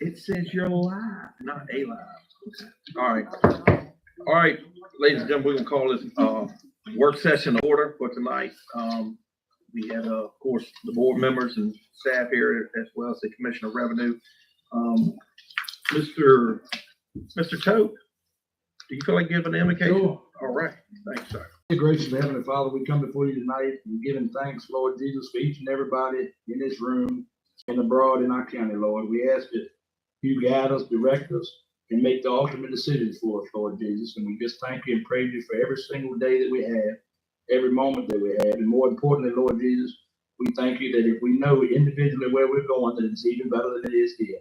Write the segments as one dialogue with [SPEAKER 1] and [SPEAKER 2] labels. [SPEAKER 1] It says you're live, not a live. All right, all right, ladies and gentlemen, we can call this, uh, work session to order for tonight. Um, we had, uh, of course, the board members and staff here as well as the Commissioner of Revenue. Um, Mr. Mr. Tote, do you feel like giving an indication?
[SPEAKER 2] Lord,
[SPEAKER 1] All right, thanks, sir.
[SPEAKER 2] dear gracious heavenly Father, we come before you tonight and giving thanks, Lord Jesus, for each and everybody in this room and abroad in our county, Lord. We ask that you guide us, direct us, and make the ultimate decisions for us, Lord Jesus. And we just thank you and praise you for every single day that we have, every moment that we have. And more importantly, Lord Jesus, we thank you that if we know individually where we're going, that it's even better than it is here.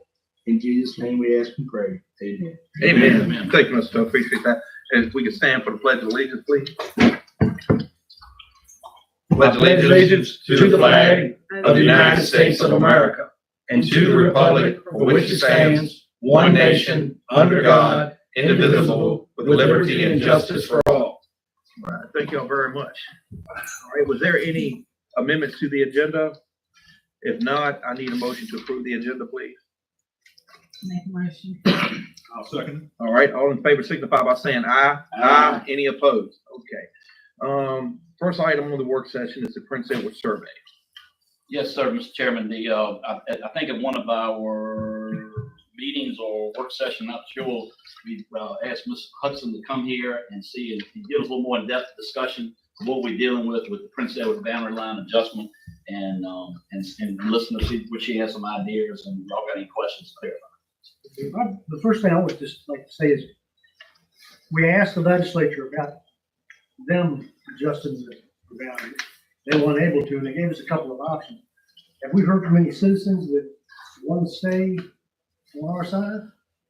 [SPEAKER 2] In Jesus' name we ask and pray. Amen.
[SPEAKER 1] Amen. Thank you, Mr. Tote, appreciate that. And if we can stand for the pledge of allegiance, please. Pledge
[SPEAKER 3] allegiance to the flag
[SPEAKER 4] of the United States of America and to the republic for which it stands, one nation, under God, indivisible, with liberty and justice for all.
[SPEAKER 1] All right, Thank y'all very much. All right, was there any amendments to the agenda? If not, I need a motion to approve the agenda, please.
[SPEAKER 4] Make a motion.
[SPEAKER 3] I'll second.
[SPEAKER 1] All right, all in favor signify by saying aye.
[SPEAKER 2] Aye.
[SPEAKER 1] Any opposed? Okay. Um, first item on the work session is the Prince Edward Survey.
[SPEAKER 5] Yes, sir, Mr. Chairman, the, uh, I, I think at one of our meetings or work session, not sure, we, uh, asked Ms. Hudson to come here and see and and give us a little more in-depth discussion of what we're dealing with, with the Prince Edward boundary line adjustment and, um, and, and listen to see what she has some ideas and y'all got any questions there.
[SPEAKER 6] I- The first thing I would just like to say is, we asked the legislature about them adjusting the boundary. They weren't able to, and they gave us a couple of options. Have we heard from any citizens that want to stay on our side?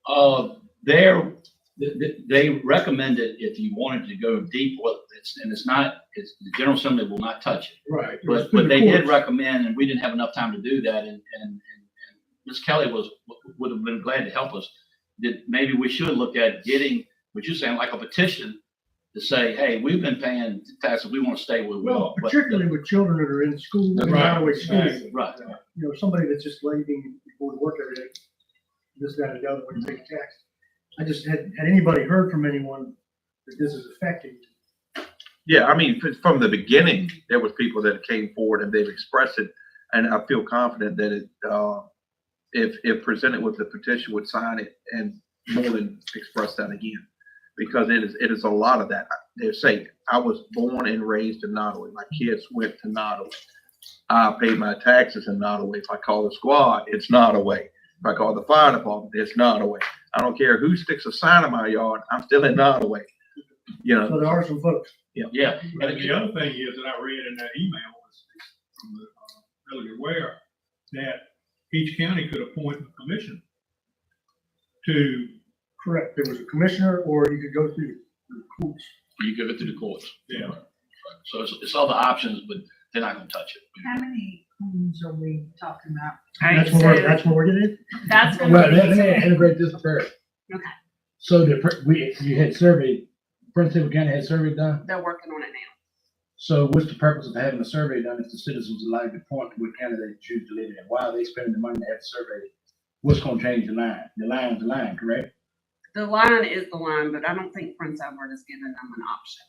[SPEAKER 5] Uh, there, th- th- they recommended if you wanted to go deep, well, it's, and it's not, it's, the General Assembly will not touch it.
[SPEAKER 6] Right.
[SPEAKER 5] But, but they did recommend, and we didn't have enough time to do that, and, and, and and Ms. Kelly was, would have been glad to help us. That maybe we should look at getting, what you're saying, like a petition to say, hey, we've been paying taxes, we want to stay where we are.
[SPEAKER 6] Well,
[SPEAKER 5] But-
[SPEAKER 6] particularly with children that are in school, and
[SPEAKER 3] Right,
[SPEAKER 6] not always schooling.
[SPEAKER 5] Right,
[SPEAKER 6] You know, somebody that's just leaving before to work every day, this, that, and the other, would take tax. I just, had, had anybody heard from anyone that this is affecting?
[SPEAKER 3] Yeah, I mean, f- from the beginning, there was people that came forward and they've expressed it. And I feel confident that it, uh, if, if presented with the petition, would sign it and more than express that again. Because it is, it is a lot of that. They're saying, I was born and raised in Nottaway. My kids went to Nottaway. I paid my taxes in Nottaway. If I call the squad, it's Nottaway. If I call the fire department, it's Nottaway. I don't care who sticks a sign in my yard, I'm still in Nottaway. You know,
[SPEAKER 6] So there are some folks
[SPEAKER 5] yeah.
[SPEAKER 7] And the other thing is that I read in that email was from the, uh, Elliot Ware, that each county could appoint a commission to,
[SPEAKER 6] Correct, there was a commissioner, or you could go through the courts.
[SPEAKER 5] You give it to the courts.
[SPEAKER 7] yeah,
[SPEAKER 5] So it's, it's all the options, but they're not gonna touch it.
[SPEAKER 4] How many homes are we talking about?
[SPEAKER 6] That's what we're, that's what we're getting at.
[SPEAKER 8] That's
[SPEAKER 2] Well,
[SPEAKER 8] gonna
[SPEAKER 2] let
[SPEAKER 8] be-
[SPEAKER 2] me integrate this prayer.
[SPEAKER 8] Okay.
[SPEAKER 2] So the, pr- we, you had survey, Prince Edward County had survey done,
[SPEAKER 8] They're working on it now.
[SPEAKER 2] so what's the purpose of having a survey done if the citizens are allowed to point to what county they choose to live in? Why are they spending the money to have surveyed? What's gonna change the line? The line's the line, correct?
[SPEAKER 8] The line is the line, but I don't think Prince Edward is giving them an option.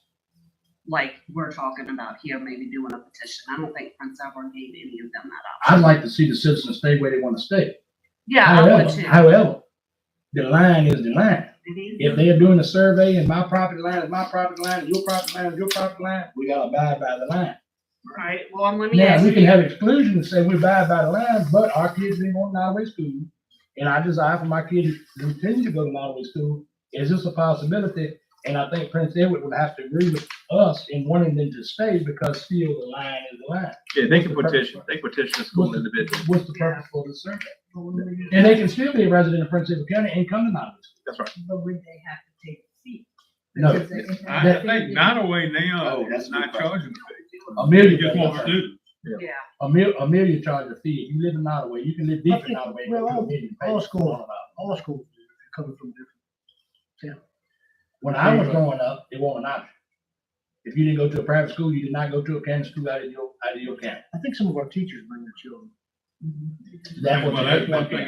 [SPEAKER 8] Like we're talking about here, maybe doing a petition. I don't think Prince Edward gave any of them that option.
[SPEAKER 2] I'd like to see the citizens stay where they wanna stay.
[SPEAKER 8] Yeah, I would
[SPEAKER 2] However,
[SPEAKER 8] too.
[SPEAKER 2] however, the line is the line.
[SPEAKER 8] Mhm.
[SPEAKER 2] If they're doing a survey and my property line is my property line, and your property line is your property line, we gotta abide by the line.
[SPEAKER 8] Right, well, and let me
[SPEAKER 2] Now,
[SPEAKER 8] ask
[SPEAKER 2] we can
[SPEAKER 8] you,
[SPEAKER 2] have exclusion and say we buy by the line, but our kids ain't going to Nottaway School. And I desire for my kids to continue to go to Nottaway School. Is this a possibility? And I think Prince Edward would have to agree with us in wanting them to stay because still the line is the line.
[SPEAKER 3] Yeah, they can petition, they can petition a school individual.
[SPEAKER 2] What's the purpose for the survey? And they can still be a resident of Prince Edward County and come to Nottaway School.
[SPEAKER 3] That's right.
[SPEAKER 4] But would they have to take a seat?
[SPEAKER 2] No.
[SPEAKER 4] Because they-
[SPEAKER 7] I I think Nottaway now
[SPEAKER 2] Oh, that's
[SPEAKER 7] is not
[SPEAKER 2] a good question.
[SPEAKER 7] charging. a fee. They
[SPEAKER 2] Amelia,
[SPEAKER 7] just want students.
[SPEAKER 8] yeah,
[SPEAKER 2] Amelia, Amelia charged a fee. If you live in Nottaway, you can live deep in Nottaway. and go to
[SPEAKER 6] Well,
[SPEAKER 2] Amelia and pay.
[SPEAKER 6] All schools, all schools are coming from different.
[SPEAKER 2] When I
[SPEAKER 7] uh,
[SPEAKER 2] was growing up, it wasn't an option. If you didn't go to a private school, you did not go to a county school out of your, out of your county.
[SPEAKER 6] I think some of our teachers bring their children.
[SPEAKER 4] That would
[SPEAKER 7] Well,
[SPEAKER 4] be-
[SPEAKER 7] that's one thing